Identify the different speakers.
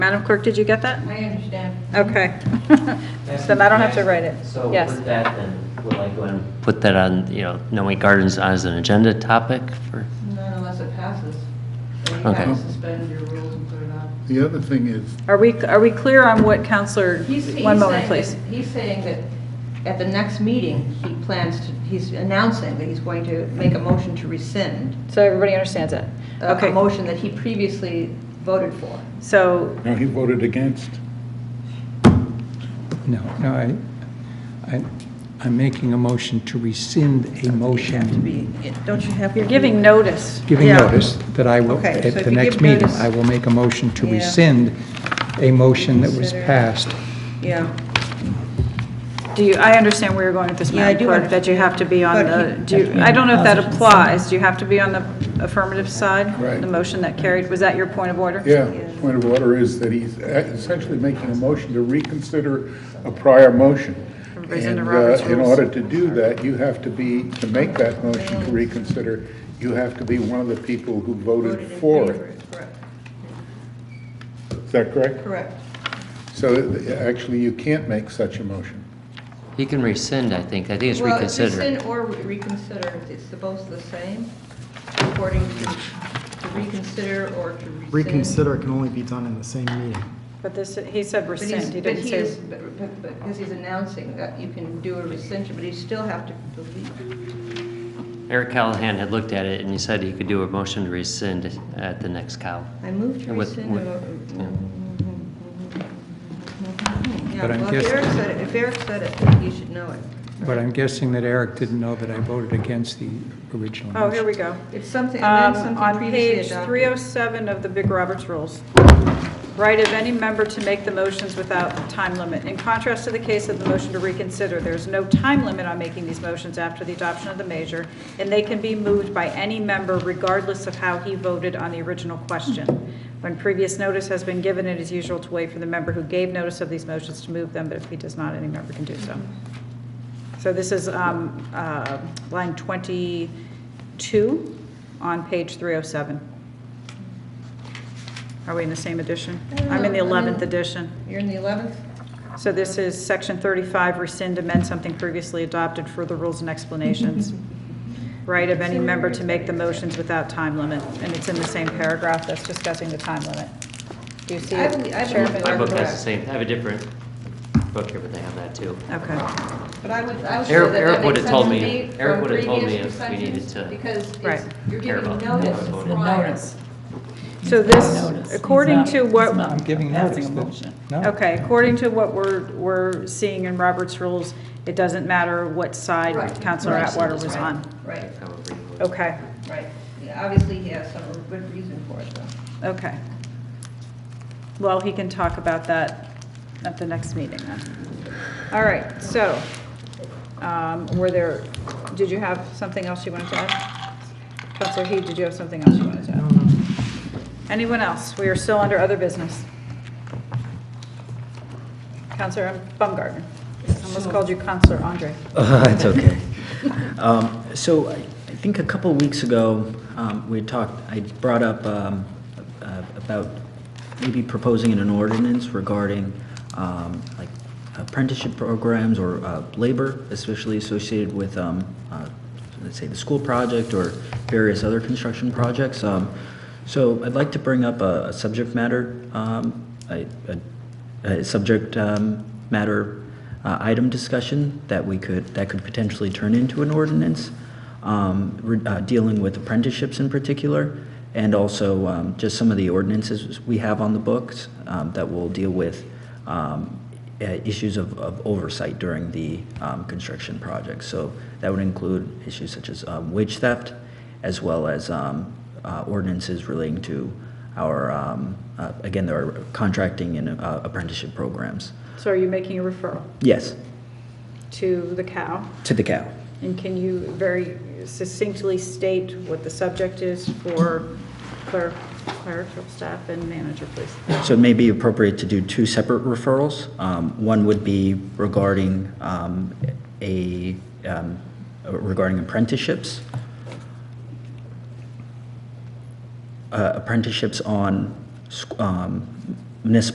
Speaker 1: Madam Clerk, did you get that?
Speaker 2: I understand.
Speaker 1: Okay. So I don't have to write it.
Speaker 3: So
Speaker 1: Yes.
Speaker 3: with that, then, will I go and put that on, you know, Noe Gardens as an agenda topic for?
Speaker 2: Not unless it passes. Or you
Speaker 3: Okay.
Speaker 2: have to suspend your rules and put it on.
Speaker 4: The other thing is,
Speaker 1: Are we, are we clear on what Counselor,
Speaker 2: He's- he's
Speaker 1: one moment,
Speaker 2: saying
Speaker 1: please.
Speaker 2: that- He's saying that at the next meeting, he plans to, he's announcing that he's going to make a motion to rescind uh,
Speaker 1: So everybody understands it?
Speaker 2: a- a
Speaker 1: Okay,
Speaker 2: motion that he previously voted for.
Speaker 1: so,
Speaker 4: no, he voted against.
Speaker 5: No, no, I, I, I'm making a motion to rescind a motion,
Speaker 2: Don't you have?
Speaker 1: you're giving notice.
Speaker 5: giving
Speaker 2: Yeah.
Speaker 5: notice that I will,
Speaker 2: Okay, so if
Speaker 5: at the
Speaker 2: you
Speaker 5: next
Speaker 2: give
Speaker 5: meeting,
Speaker 2: notice-
Speaker 5: I will make a motion to
Speaker 2: Yeah.
Speaker 5: rescind a motion that was
Speaker 2: Consider.
Speaker 5: passed.
Speaker 2: Yeah.
Speaker 1: Do you, I understand where you're going with this,
Speaker 2: Yeah, I
Speaker 1: Madam
Speaker 2: do
Speaker 1: Clerk, that you have to be on
Speaker 2: But
Speaker 1: the, do you, I don't know if that applies. Do you have to be on the affirmative side?
Speaker 4: Right.
Speaker 1: The motion that carried, was that your point of order?
Speaker 4: Yeah, point of order is that he's essentially making a motion to reconsider a prior motion.
Speaker 1: Everybody's under
Speaker 4: And, uh,
Speaker 1: Robert's
Speaker 4: In
Speaker 1: rules.
Speaker 4: order to do that, you have to be, to make that motion to reconsider, you have to be one of the people who voted for it.
Speaker 2: Correct.
Speaker 4: Is that correct?
Speaker 2: Correct.
Speaker 4: So uh, actually, you can't make such a motion.
Speaker 3: He can rescind, I think. I think it's
Speaker 2: Well,
Speaker 3: reconsidered.
Speaker 2: rescind or reconsider, it's both the same, according to to reconsider or to rescind.
Speaker 6: Reconsider can only be done in the same meeting.
Speaker 1: But this, he said
Speaker 2: But he's-
Speaker 1: rescind, he
Speaker 2: But
Speaker 1: didn't
Speaker 2: he
Speaker 1: say.
Speaker 2: is, but- but- but- because he's announcing that you can do a rescission, but you still have to delete.
Speaker 3: Eric Callahan had looked at it and he said he could do a motion to rescind at the next cow.
Speaker 2: I move to
Speaker 3: And with-
Speaker 2: rescind.
Speaker 3: with-
Speaker 2: uh,
Speaker 3: yeah.
Speaker 2: Yeah,
Speaker 5: But I'm
Speaker 2: well, if
Speaker 5: guessing-
Speaker 2: Eric said it, if Eric said it, you should know it.
Speaker 5: But I'm guessing that Eric didn't know that I voted against the original motion.
Speaker 1: Oh, here we go.
Speaker 2: It's something,
Speaker 1: Um,
Speaker 2: and then
Speaker 1: On
Speaker 2: something previously
Speaker 1: page
Speaker 2: adopted.
Speaker 1: 307 of the Big Roberts Rules, right of any member to make the motions without time limit. In contrast to the case of the motion to reconsider, there's no time limit on making these motions after the adoption of the measure, and they can be moved by any member regardless of how he voted on the original question. When previous notice has been given, it is usual to wait for the member who gave notice of these motions to move them, but if he does not, any member can do so. So this is um, uh, line 22 on page 307. Are we in the same edition? I'm in the
Speaker 2: No, I'm in-
Speaker 1: 11th edition.
Speaker 2: You're in the 11th?
Speaker 1: So this is section 35, rescind, amend something previously adopted, further rules and explanations. Right of any member to make the motions without time limit, and it's in the same paragraph that's discussing the time limit. Do you see
Speaker 2: I
Speaker 1: it,
Speaker 2: believe- I
Speaker 1: Chairman?
Speaker 2: believe
Speaker 3: My book has the
Speaker 2: Correct.
Speaker 3: same, I have a different book here, but they have that too.
Speaker 1: Okay.
Speaker 2: But I would, I would say
Speaker 3: Eric-
Speaker 2: that
Speaker 3: Eric
Speaker 2: that
Speaker 3: would've
Speaker 2: makes
Speaker 3: told
Speaker 2: sense to
Speaker 3: me-
Speaker 2: me
Speaker 3: Eric
Speaker 2: from
Speaker 3: would've told me
Speaker 2: previous
Speaker 3: if we needed
Speaker 2: discussions,
Speaker 3: to
Speaker 2: Because it's,
Speaker 1: Right.
Speaker 2: you're
Speaker 3: care
Speaker 2: giving
Speaker 3: about
Speaker 2: notice
Speaker 3: how I voted.
Speaker 2: prior.
Speaker 1: So this, according to what...
Speaker 5: I'm giving notice. that- No.
Speaker 1: Okay, according to what we're, we're seeing in Robert's rules, it doesn't matter what side
Speaker 2: Right.
Speaker 1: Counselor Atwater was on.
Speaker 2: Right,
Speaker 3: However you would.
Speaker 1: Okay,
Speaker 2: right. Yeah, Obviously, he has some good reason for it, though.
Speaker 1: okay. Well, he can talk about that at the next meeting then. All right, so, um, were there, did you have something else you wanted to add? Counselor Heed, did you have something else you wanted to add? Anyone else? We are still under other business. Counselor Baumgartner. Almost called you Counselor Andre.
Speaker 7: Uh, It's okay. Um, So I I think a couple weeks ago, um, we had talked, I brought up um, uh, about maybe proposing an ordinance regarding um, like apprenticeship programs or uh, labor, especially associated with, um, uh, let's say, the school project or various other construction projects. Um, So I'd like to bring up a a subject matter, um, I- a a uh, subject um, matter uh, item discussion that we could, that could potentially turn into an ordinance, um, re- uh, dealing with apprenticeships in particular, and also um, just some of the ordinances we have on the books um, that will deal with um, uh, issues of of oversight during the um, construction project. So that would include issues such as um, wage theft, as well as um, uh, ordinances relating to our, um, uh, again, there are contracting and uh, apprenticeship programs.
Speaker 1: So are you making a referral
Speaker 7: Yes,
Speaker 1: to the cow?
Speaker 7: to the cow.
Speaker 1: And can you very succinctly state what the subject is for cler- clerical staff and manager, please?
Speaker 7: So it may be appropriate to do two separate referrals. Um, One would be regarding um, a, um, regarding apprenticeships. Uh, Apprenticeships on sc- um, municipal